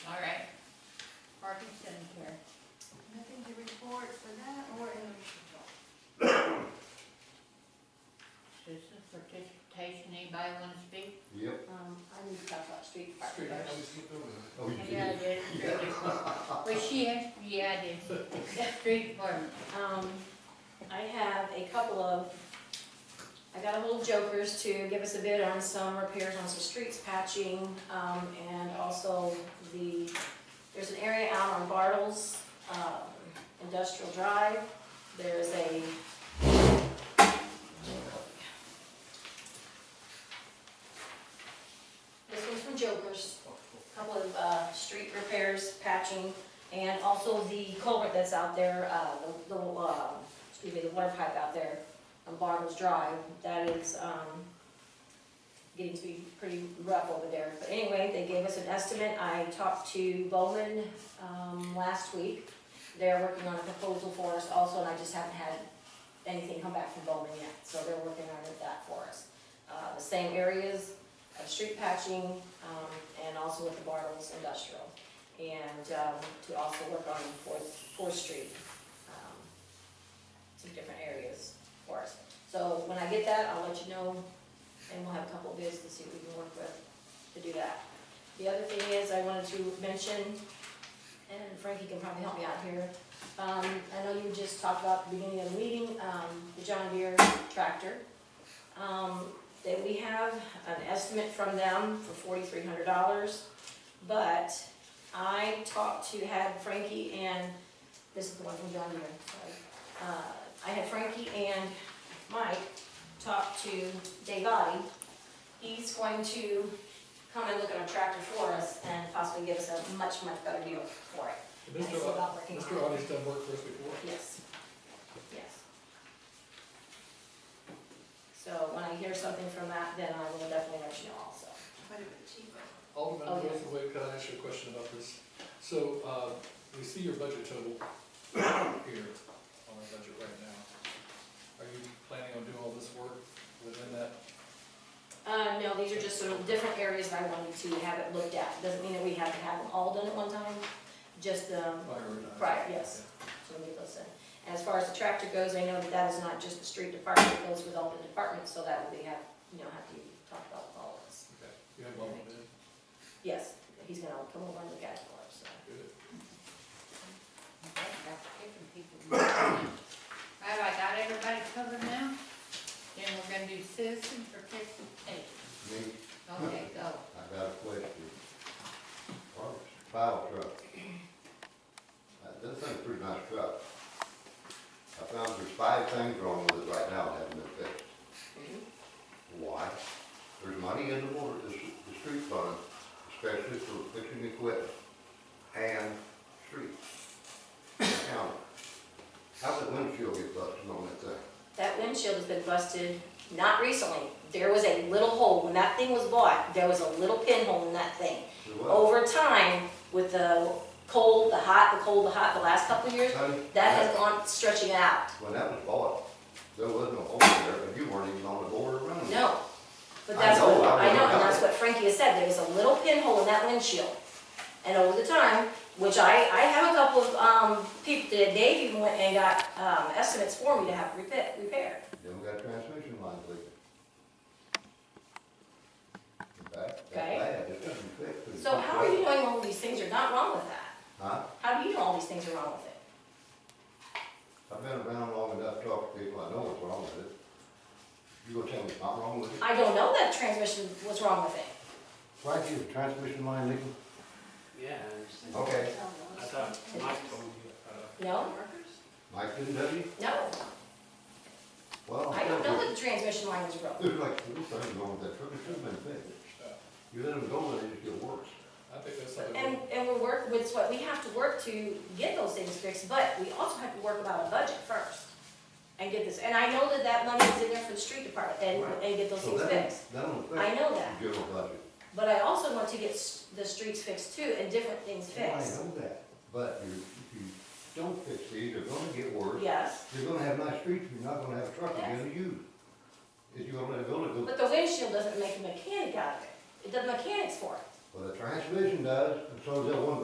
Nothing to report for that or in Citizen participation, anybody wanna speak? Yep. Um, I need to talk about street Straight, department I first. just looked over there. Oh, you Yeah, I did. did. Well, she asked, yeah, I did. Street department. Um, I have a couple of, I got a little jokers to give us a bid on some repairs on some streets patching, um, and also the, there's an area out on Bartles, um, Industrial Drive, there's a This one's from Jokers, a couple of, uh, street repairs, patching, and also the culvert that's out there, uh, the, the, uh, excuse me, the water pipe out there on Bartles Drive, that is, um, getting to be pretty rough over there. But anyway, they gave us an estimate. I talked to Bowman, um, last week. They're working on a proposal for us also, and I just haven't had anything come back from Bowman yet, so they're working on it- that for us. Uh, the same areas of street patching, um, and also with the Bartles Industrial and um, to also work on Fourth, Fourth Street, um, some different areas for us. So when I get that, I'll let you know, and we'll have a couple of bids to see what we can work with to do that. The other thing is, I wanted to mention, and Frankie can probably help me out here, um, I know you just talked about at the beginning of the meeting, um, the John Deere tractor. Um, that we have an estimate from them for forty-three hundred dollars, but I talked to, had Frankie and, this is the one from John Deere, sorry. Uh, I had Frankie and Mike talk to Dave Gotti. He's going to come and look at our tractor for us and possibly give us a much, much better deal for it. I Mr. still Ott- not working on it. Mr. Otter's done work for us before. Yes, yes. So when I hear something from that, then I will definitely let you know also. quite a bit cheaper. Alderman Oh, Joseph Wade, can I ask you a question about this? So, uh, we see your budget total here on our budget right now. Are you planning on doing all this work within that? Uh, no, these are just sort of different areas that I wanted to have it looked at. Doesn't mean that we have to have them all done at one time, just the, priority? right, yes. So we get those in. And As far as the tractor goes, I know that that is not just the street department, it goes with all the departments, so that will be have, you know, have to be talked about with all of us. Okay, you have one more bid? Yes, he's gonna come over and look at it for us, so. Good. That's kicking people. All right, I got everybody covered now? Then we're gonna do citizen participation. Me, Okay, go. I got a question. File truck. Uh, This thing's a pretty nice truck. I found there's five things wrong with it right now that haven't been fixed. Why? There's money in the water, the, s- the street fund, especially for fixing equipment and streets. The county. How's the windshield get busted on that thing? That windshield has been busted, not recently. There was a little hole, when that thing was bought, there was a little pinhole in that thing. The what? Over time, with the cold, the hot, the cold, the hot, the last couple of years, Honey? that has gone stretching out. When that was bought, there wasn't a hole there, and you weren't even on the board running. it. No. But I that's what, know, I I know, know. and that's what Frankie has said, there was a little pinhole in that windshield. And over the time, which I, I have a couple of, um, people that Dave even went and got, um, estimates for me to have repair, repaired. Then we got transmission lines leaking. In fact, that's Okay. bad, it doesn't fix it. So how are you knowing all these things are not wrong with that? Huh? How do you know all these things are wrong with it? I've been around long enough, talked to people, I know what's wrong with it. You gonna tell me it's not wrong with it? I don't know that transmission was wrong with it. Frankie, the transmission line leaking? Yeah, I understand. Okay, I thought Mike told you, uh, No, Mike didn't tell you? no, Well, I don't know that the transmission line was broken. There's like four things wrong with that truck, it should have been fixed. You let them go, let it get worse. I think that's something. And, and we work with what, we have to work to get those things fixed, but we also have to work about a budget first. And get this, and I know that that money is in there for the street department and, and get those So things that don't- fixed. That don't I fix know the that, general budget. but I also want to get s- the streets fixed too and different things Well, I fixed. know that, but you, if you don't fix these, they're gonna get worse. Yes, You're gonna have nice streets, you're not gonna have a truck you're Yes. gonna use. If you're gonna let it go, it goes, but the windshield doesn't make a mechanic out of it. It does mechanics for it. well, the transmission does, and so does that one